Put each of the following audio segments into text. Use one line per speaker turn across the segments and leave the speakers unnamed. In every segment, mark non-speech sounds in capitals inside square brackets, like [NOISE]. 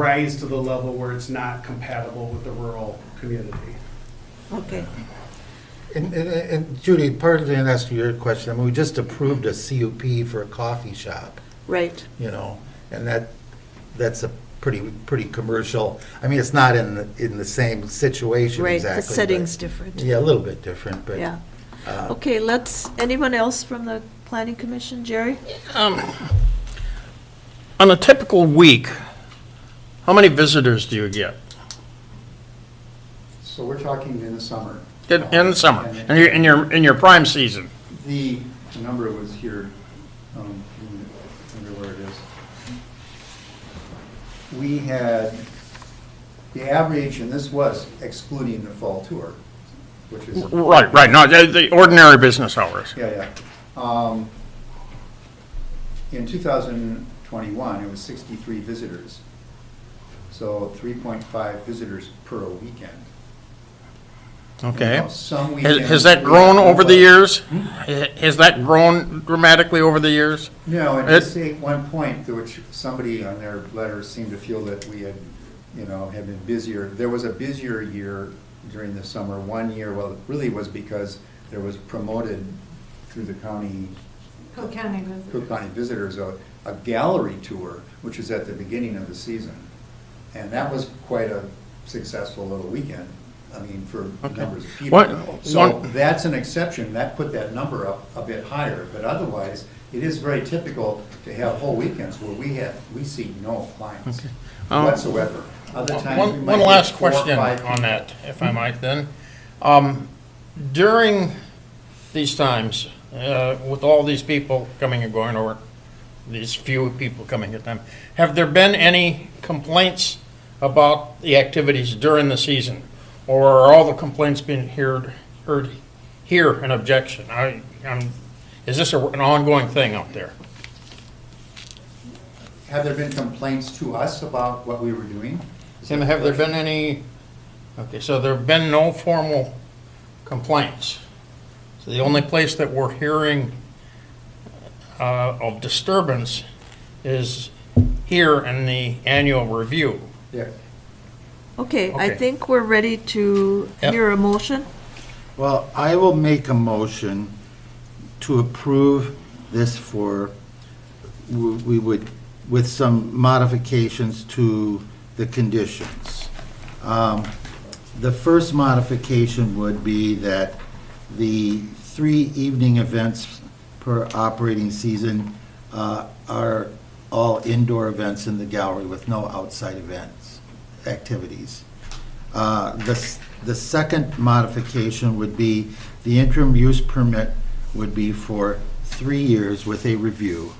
rise to the level where it's not compatible with the rural community.
Okay.
And, and- and Judy, partly in answer to your question, I mean, we just approved a CUP for a coffee shop,
Right.
you know, and that, that's a pretty, pretty commercial, I mean, it's not in, the- in the same situation
Right,
exactly.
the
but-
setting's different.
Yeah, a little bit different, but.
Yeah.
uh,
Okay, let's, anyone else from the planning commission? Jerry?
On a typical week, how many visitors do you get
So we're talking in the summer.
in in the summer,
And
in your, in your, in your prime season?
The, the number was here, um, I wonder where it is. We had, the average, and this was excluding the fall tour, which is.
Right, right, no, the, the ordinary business hours.
Yeah, yeah. Um, In 2021, it was 63 visitors. So 3.5 visitors per weekend.
Okay.
Now, Some
Has,
weekends.
has that
we
grown
have
over the
nobody.
years? Ha- Has that grown dramatically over the years?
No, and
It-
just at one point, to which somebody on their letter seemed to feel that we had, you know, had been busier. There was a busier year during the summer, one year, well, it really was because there was promoted through the county,
Cook County visitors.
Cook County Visitors, a, a gallery tour, which was at the beginning of the season. And that was quite a successful little weekend, I mean, for
Okay.
numbers of people.
What-
So
one-
that's an exception, that put that number up a bit higher, but otherwise, it is very typical to have whole weekends where we have, we see no clients
Okay. Um,
whatsoever. Other times, we
One,
might
one
get
last
four or
question
five
on
people.
that, if I might then. Um, During these times, uh, with all these people coming and going, or these few people coming at them, have there been any complaints about the activities during the season? Or are all the complaints being heard, heard here an objection? I, I'm, is this a- an ongoing thing out there?
Have there been complaints to us about what we were doing? Is
Tim,
that the
have there
question?
been any, okay, so there have been no formal complaints. So the only place that we're hearing uh, of disturbance is here in the annual review.
Yeah.
Okay, I
Okay.
think we're ready to
Yep.
hear a motion.
Well, I will make a motion to approve this for, we we would, with some modifications to the conditions. Um, The first modification would be that the three evening events per operating season uh, are all indoor events in the gallery with no outside events, activities. Uh, The, s- the second modification would be, the interim use permit would be for three years with a review.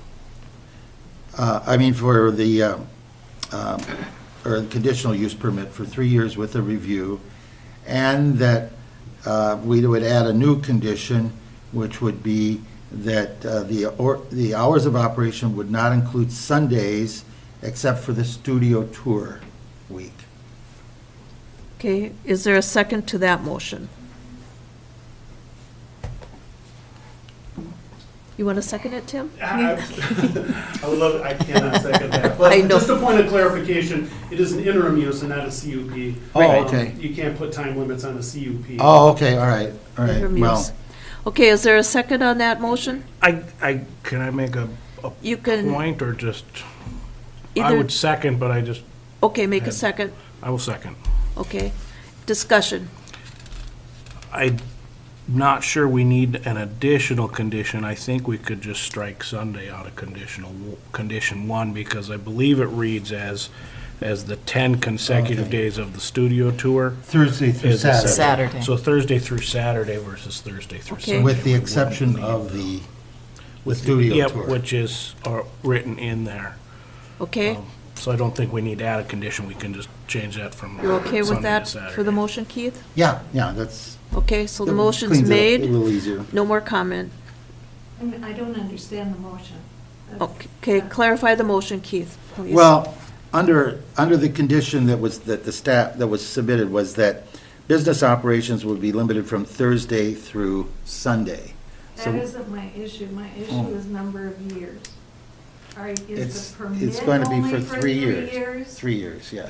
Uh, I mean, for the, um, um, or the conditional use permit for three years with a review, and that uh, we would add a new condition, which would be that uh, the, or- the hours of operation would not include Sundays except for the studio tour week.
Okay, is there a second to that motion? You want to second it, Tim?
[LAUGHS]
I I would love, I cannot second that. But
I know.
just a point of clarification, it is an interim use and not a CUP.
Oh,
Um,
okay.
You can't put time limits on a CUP.
Oh, okay, all right, all right,
Interim
well.
use. Okay, is there a second on that motion?
I, I, can I make a
You can
point or just, I
either,
would second, but I just,
okay, make a second,
I will second.
okay. Discussion,
I'm not sure we need an additional condition. I think we could just strike Sunday out of conditional, w- condition one, because I believe it reads as, as the 10 consecutive
Okay.
days of the studio tour.
Thursday through
is the
Saturday,
Saturday.
So Thursday through Saturday versus Thursday through
Okay.
Sunday.
with the
would
exception
leave.
of the
With-
studio
Yep,
tour.
which is uh, written in there.
okay?
So I don't think we need to add a condition, we can just change that from
You're okay with
Sunday to
that for the
Saturday.
motion, Keith?
Yeah, yeah, that's.
Okay, so the
that
motion's
cleans it up
made.
A little easier.
No more comment.
I mean, I don't understand the motion.
Okay, clarify the motion, Keith, please.
Well, under, under the condition that was, that the staff, that was submitted was that business operations would be limited from Thursday through Sunday.
That
So,
isn't my issue. My
Oh.
issue is number of years. All right,
It's,
is the permit
it's going to be
only
for three
three
years.
years?
Three years, yeah.